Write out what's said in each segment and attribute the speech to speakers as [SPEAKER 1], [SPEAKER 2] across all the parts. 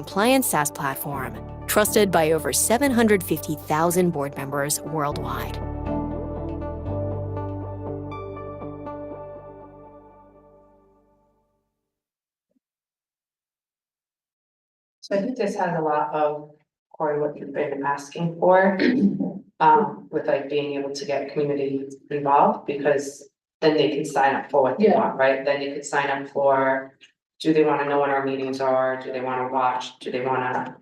[SPEAKER 1] compliant SaaS platform trusted by over 750,000 board members worldwide.
[SPEAKER 2] So I think this has a lot of, Corey, what you've been asking for, um, with like being able to get community involved, because then they can sign up for what they
[SPEAKER 3] Yeah.
[SPEAKER 2] want, right? Then you could sign up for, do they wanna know what our meetings are? Do they wanna watch? Do they wanna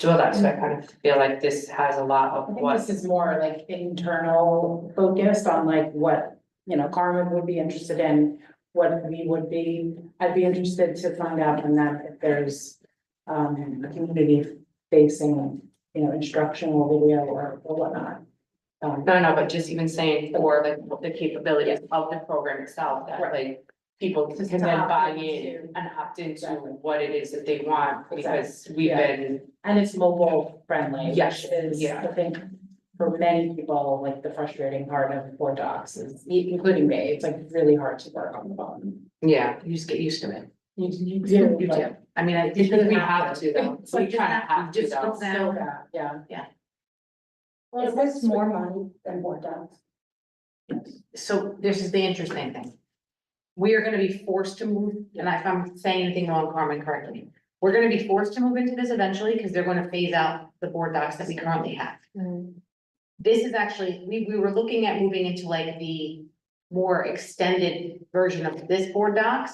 [SPEAKER 2] do all that? So I kind of feel like this has a lot of
[SPEAKER 3] Mm. I think
[SPEAKER 2] what,
[SPEAKER 3] this is more like internal focused on like what, you know, Carmen would be interested in, what we would be. I'd be interested to find out from that if there's um a community facing, you know, instructional video or or whatnot. Um,
[SPEAKER 2] no, no, but just even saying for like the capabilities of the program itself, that
[SPEAKER 3] Right.
[SPEAKER 2] like people can
[SPEAKER 3] Just
[SPEAKER 2] then
[SPEAKER 3] to opt
[SPEAKER 2] buy
[SPEAKER 3] into-
[SPEAKER 2] in and opt into
[SPEAKER 3] Exactly.
[SPEAKER 2] what it is that they want, because we've
[SPEAKER 3] Yeah.
[SPEAKER 2] been
[SPEAKER 3] and it's mobile friendly,
[SPEAKER 2] Yes,
[SPEAKER 3] which is,
[SPEAKER 2] yeah.
[SPEAKER 3] I think, for many people, like the frustrating part of board docs is, including me, it's like really hard to work on the phone.
[SPEAKER 2] Yeah, you just get used to it.
[SPEAKER 3] You you do,
[SPEAKER 2] You
[SPEAKER 3] but-
[SPEAKER 2] do. I mean, I
[SPEAKER 3] It's
[SPEAKER 2] think we
[SPEAKER 3] not-
[SPEAKER 2] have to though.
[SPEAKER 3] it's
[SPEAKER 2] We
[SPEAKER 3] like
[SPEAKER 2] kind of
[SPEAKER 3] that-
[SPEAKER 2] have to
[SPEAKER 3] just
[SPEAKER 2] though.
[SPEAKER 3] it's so bad, yeah.
[SPEAKER 4] Yeah.
[SPEAKER 3] Well,
[SPEAKER 4] Is this
[SPEAKER 3] more money than board docs?
[SPEAKER 4] So this is the interesting thing. We are gonna be forced to move, and if I'm saying anything wrong, Carmen, correct me. We're gonna be forced to move into this eventually, because they're gonna phase out the board docs that we currently have. This is actually, we, we were looking at moving into like the more extended version of this board docs,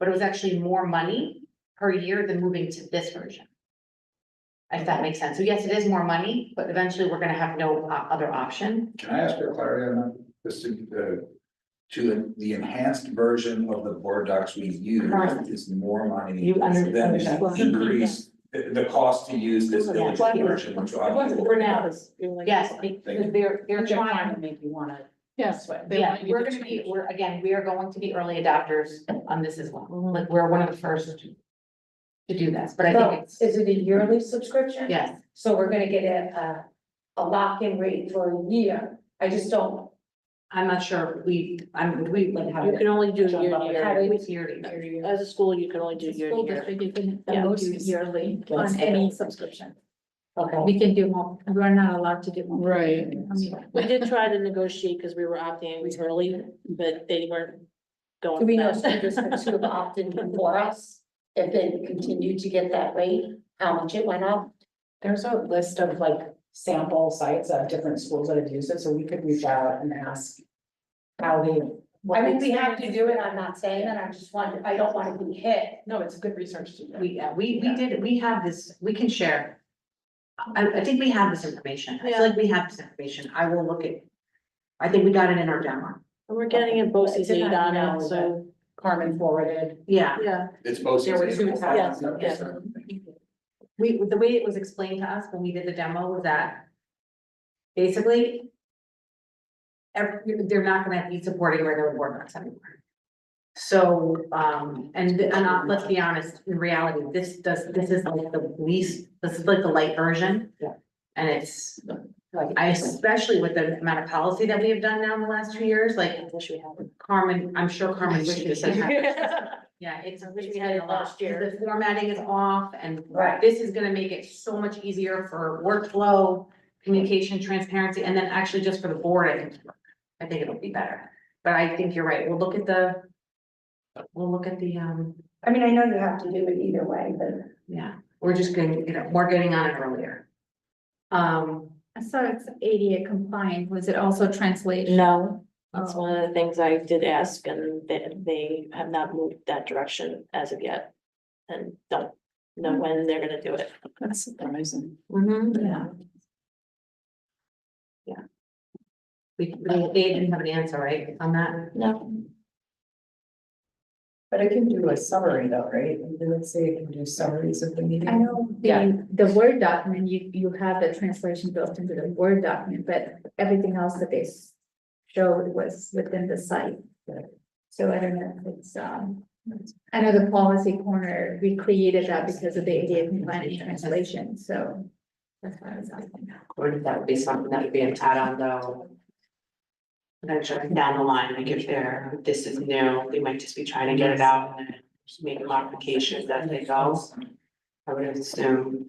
[SPEAKER 4] but it was actually more money per year than moving to this version. If that makes sense. So yes, it is more money, but eventually we're gonna have no uh, other option.
[SPEAKER 5] Can I ask for clarity on that? This is the, to the enhanced version of the board docs we use
[SPEAKER 4] Right.
[SPEAKER 5] is more money
[SPEAKER 2] You
[SPEAKER 5] than the
[SPEAKER 2] understand.
[SPEAKER 5] increase, the, the cost to use this village
[SPEAKER 3] Yeah.
[SPEAKER 5] version, which
[SPEAKER 3] It
[SPEAKER 5] I.
[SPEAKER 3] wasn't for now, it's
[SPEAKER 4] Yes, because
[SPEAKER 5] Thank
[SPEAKER 4] they're, they're
[SPEAKER 3] they're
[SPEAKER 4] trying.
[SPEAKER 3] trying to make you wanna.
[SPEAKER 6] Yes,
[SPEAKER 3] switch.
[SPEAKER 6] They
[SPEAKER 4] Yeah,
[SPEAKER 6] want you
[SPEAKER 4] we're
[SPEAKER 6] to
[SPEAKER 4] gonna be,
[SPEAKER 6] change.
[SPEAKER 4] we're, again, we are going to be early adopters on this as well, like, we're one of the first to. To do this, but I
[SPEAKER 7] So,
[SPEAKER 4] think it's,
[SPEAKER 7] Is it a yearly subscription?
[SPEAKER 4] yes,
[SPEAKER 7] So we're gonna get a, a, a lock-in rate for a year, I just don't,
[SPEAKER 4] I'm not sure, if we, I'm, we like how.
[SPEAKER 6] You can only do
[SPEAKER 3] Jump
[SPEAKER 6] year
[SPEAKER 3] up
[SPEAKER 6] to
[SPEAKER 3] and
[SPEAKER 6] year.
[SPEAKER 7] have
[SPEAKER 4] It's year to year.
[SPEAKER 6] As a school, you can only do year to
[SPEAKER 8] School
[SPEAKER 6] year.
[SPEAKER 8] district, you can
[SPEAKER 6] Yeah.
[SPEAKER 8] um, do yearly on any subscription.
[SPEAKER 7] okay,
[SPEAKER 8] We can do more, we're not allowed to do more.
[SPEAKER 6] Right.
[SPEAKER 8] I mean,
[SPEAKER 6] We did try to negotiate because we were opting in early, but they weren't going.
[SPEAKER 7] do we know
[SPEAKER 6] for
[SPEAKER 7] school
[SPEAKER 6] that.
[SPEAKER 7] districts who have opted in for us? If they continue to get that rate, how much it went up?
[SPEAKER 3] There's a list of like sample sites of different schools that have used it, so we could reach out and ask. How they. what
[SPEAKER 7] I mean, we
[SPEAKER 3] they-
[SPEAKER 7] have to do it, I'm not saying that, I just wanted, I don't wanna be hit.
[SPEAKER 3] No, it's good research to do.
[SPEAKER 4] We, yeah, we, we did, we have this, we can share. I, I think we have this information, I
[SPEAKER 6] Yeah.
[SPEAKER 4] feel like we have this information, I will look at. I think we got it in our demo,
[SPEAKER 6] And We're getting a BOSI's
[SPEAKER 3] It's in
[SPEAKER 6] aid
[SPEAKER 3] that
[SPEAKER 6] on
[SPEAKER 3] email
[SPEAKER 6] it, so,
[SPEAKER 3] Carmen forwarded.
[SPEAKER 4] yeah,
[SPEAKER 6] yeah.
[SPEAKER 5] It's both.
[SPEAKER 3] There were two tabs,
[SPEAKER 6] yeah.
[SPEAKER 4] we, the way it was explained to us when we did the demo was that. Basically. Every, they're not gonna be supporting regular board docs anymore. So, um, and, and uh, let's be honest, in reality, this does, this is like the least, this is like the light version.
[SPEAKER 3] Yeah.
[SPEAKER 4] And it's,
[SPEAKER 3] Like,
[SPEAKER 4] I especially with the amount of policy that we have done now in the last two years, like Carmen, I'm sure Carmen wishes this had. Yeah, it's, I wish we had a lot,
[SPEAKER 7] Last year.
[SPEAKER 4] the formatting is off and
[SPEAKER 7] Right.
[SPEAKER 4] this is gonna make it so much easier for workflow, communication, transparency, and then actually just for the board, I think. I think it'll be better, but I think you're right, we'll look at the. We'll look at the, um,
[SPEAKER 7] I mean, I know you have to do it either way, but.
[SPEAKER 4] yeah, we're just getting, you know, we're getting on it earlier. Um,
[SPEAKER 8] I saw it's ADA compliant, was it also translation?
[SPEAKER 6] No,
[SPEAKER 8] Oh,
[SPEAKER 6] that's one of the things I did ask and they, they have not moved that direction as of yet. And don't know when they're gonna do it. Mm-hmm.
[SPEAKER 3] That's surprising.
[SPEAKER 8] Yeah.
[SPEAKER 4] we, we they didn't have an answer, right, on that?
[SPEAKER 6] No,
[SPEAKER 3] But I can do a summary though, right? And then let's say I can do summaries of the meeting.
[SPEAKER 8] I know
[SPEAKER 3] Yeah.
[SPEAKER 8] the, the Word document, you, you have the translation built into the Word document, but everything else that they s- showed was within the site. So I don't know, if it's, um, I know the policy corner, we created that because of the ADA compliant translation, so. That's why I was asking that.
[SPEAKER 2] Or if that would be something that would be an add-on though. Eventually down the line, like if they're, this is new, they might just be trying to get it out and then just make modifications as they go.
[SPEAKER 4] I would assume.